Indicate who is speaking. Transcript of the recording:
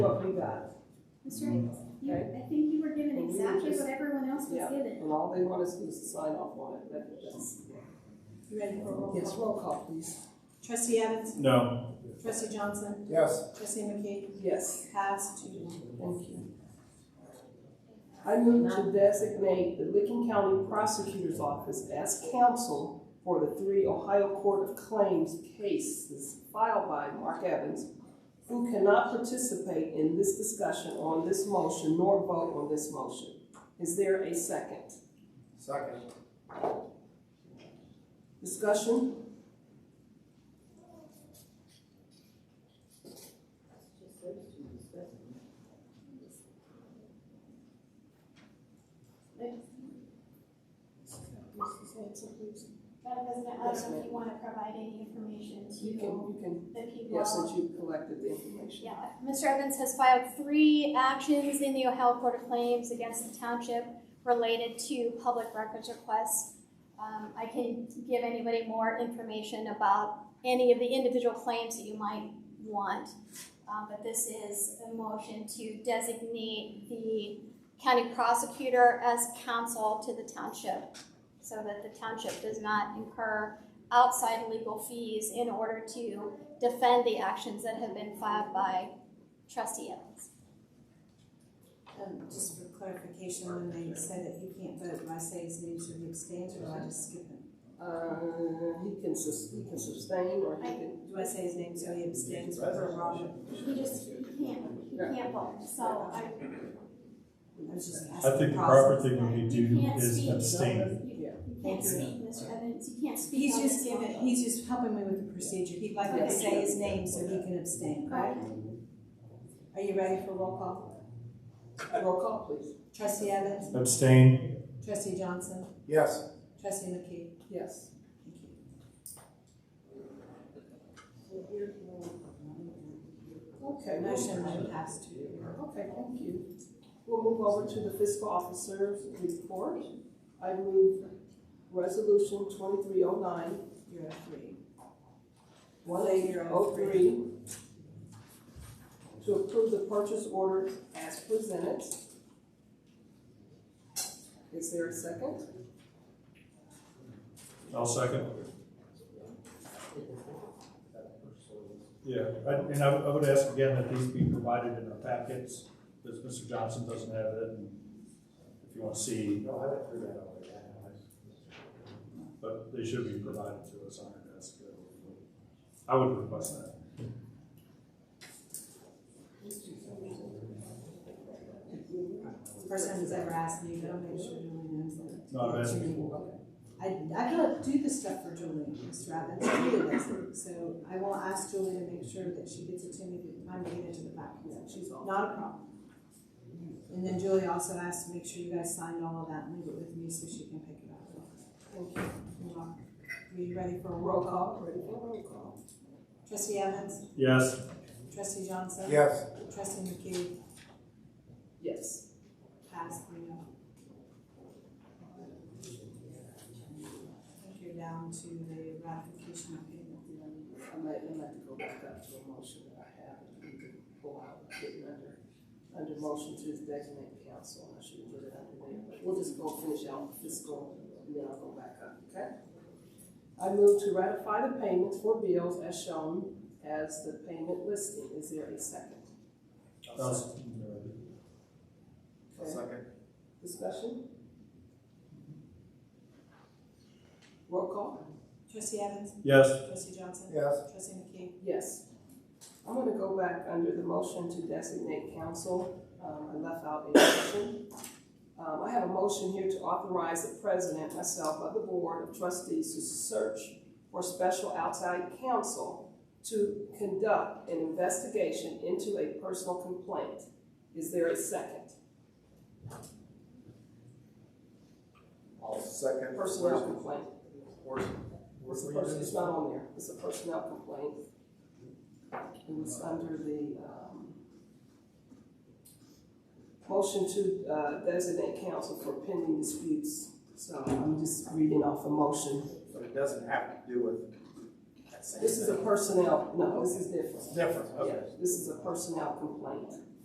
Speaker 1: five.
Speaker 2: That's right. You, I think you were given
Speaker 1: Mm-hmm. Well, we were
Speaker 2: exactly
Speaker 1: just-
Speaker 2: what everyone else was
Speaker 1: yeah.
Speaker 2: given.
Speaker 1: And all they want us to do is sign off on it, that- that's.
Speaker 3: You ready for a roll call?
Speaker 1: Yes, roll call, please.
Speaker 3: Trustee Evans?
Speaker 4: No.
Speaker 3: Trustee Johnson?
Speaker 5: Yes.
Speaker 3: Trustee McKee?
Speaker 1: Yes,
Speaker 3: Pass two to one.
Speaker 1: thank you. I move to designate the Licking County Prosecutor's Office as counsel for the three Ohio Court of Claims cases filed by Mark Evans, who cannot participate in this discussion on this motion nor vote on this motion. Is there a second?
Speaker 5: Second.
Speaker 1: Discussion?
Speaker 2: Madam President, I
Speaker 1: Yes,
Speaker 2: don't know
Speaker 1: ma'am.
Speaker 2: if you want to provide any information
Speaker 1: You can,
Speaker 2: to
Speaker 1: you can,
Speaker 2: the people.
Speaker 1: yes, since you collected the information.
Speaker 2: Yeah, Mr. Evans has filed three actions in the Ohio Court of Claims against the township related to public records requests. Um, I can give anybody more information about any of the individual claims that you might want. Uh, but this is a motion to designate the county prosecutor as counsel to the township so that the township does not incur outside legal fees in order to defend the actions that have been filed by trustee Evans.
Speaker 3: Um, just for clarification, when they say that he can't vote, do I say his name should be abstained or do I just skip him?
Speaker 1: Uh, he can sus, he can sustain or he can,
Speaker 3: Do I say his name so he abstains for Robert?
Speaker 2: He just, he can't, he can't vote, so I,
Speaker 3: I was just
Speaker 4: I think
Speaker 3: asking
Speaker 4: the
Speaker 3: process.
Speaker 4: proper thing we do is abstain.
Speaker 2: you
Speaker 1: Yeah.
Speaker 2: you can't speak, Mr. Evans, you can't speak.
Speaker 3: He's
Speaker 2: on this
Speaker 3: just giving,
Speaker 2: motion.
Speaker 3: he's just helping me with the procedure. He'd like me to
Speaker 1: Yes.
Speaker 3: say his name so he can abstain, right? Are you ready for roll call?
Speaker 1: roll call, please.
Speaker 3: Trustee Evans?
Speaker 4: Abstain.
Speaker 3: Trustee Johnson?
Speaker 5: Yes.
Speaker 3: Trustee McKee?
Speaker 1: Yes. Okay, motion.
Speaker 3: Motion then passed two to one.
Speaker 1: Okay, thank you. We'll move over to the fiscal officer's report. I move resolution twenty-three oh nine,
Speaker 3: You're at three.
Speaker 1: one eight oh three to approve the purchase order as presented. Is there a second?
Speaker 4: I'll second. Yeah, I- and I, would- I would ask again that these be provided in our packets, because Mr. Johnson doesn't have it. and If you want to see,
Speaker 5: No, I went through that already.
Speaker 4: but they should be provided to us on our desk. I would request that.
Speaker 3: First time he's ever asked me, but I'll make sure Julie knows that.
Speaker 4: No, I've asked before.
Speaker 3: I, I don't do this stuff for Julie, Mr. Evans, Julie does it, so I will ask Julie to make sure that she gets it to me, that I'm getting it to the back, she's not a problem. And then Julie also asked to make sure you guys signed all of that and leave it with me so she can pick it up.
Speaker 1: Thank you.
Speaker 3: You're welcome. Are you ready for a
Speaker 1: Roll
Speaker 3: roll call?
Speaker 1: call, ready for roll call?
Speaker 3: Trustee Evans,
Speaker 4: Yes,
Speaker 3: trustee Johnson.
Speaker 5: Yes.
Speaker 3: Trustee McKee,
Speaker 1: Yes.
Speaker 3: pass three oh. I think you're down to the ratification of payment.
Speaker 1: I might, I might have to go back up to a motion that I have, and we can pull out, getting under, under motion to designate council, and I should have put it under there, but we'll just go finish out fiscal, and then I'll go back up, okay? I move to ratify the payments for bills as shown as the payment listing, is there a second?
Speaker 4: I'll s-
Speaker 1: Okay.
Speaker 5: Second.
Speaker 1: Discussion? Roll call?
Speaker 3: Trustee Evans,
Speaker 4: yes,
Speaker 3: trustee Johnson,
Speaker 5: Yes.
Speaker 3: trustee McKee,
Speaker 1: Yes. I'm gonna go back under the motion to designate council, um, I left out a motion. Um, I have a motion here to authorize the president, myself, of the board of trustees to search for special outside counsel to conduct an investigation into a personal complaint. Is there a second?
Speaker 5: All second.
Speaker 1: Personnel complaint.
Speaker 5: Where's-
Speaker 1: It's
Speaker 5: where's-
Speaker 1: a person, it's not on there, it's a personnel complaint. It was under the, um, motion to, uh, designate counsel for pending disputes. So I'm just reading off a motion.
Speaker 5: But it doesn't have to do with. that same
Speaker 1: This is a
Speaker 5: thing.
Speaker 1: personnel, no, this is different.
Speaker 5: Different, okay.
Speaker 1: Yeah, This is a personnel complaint.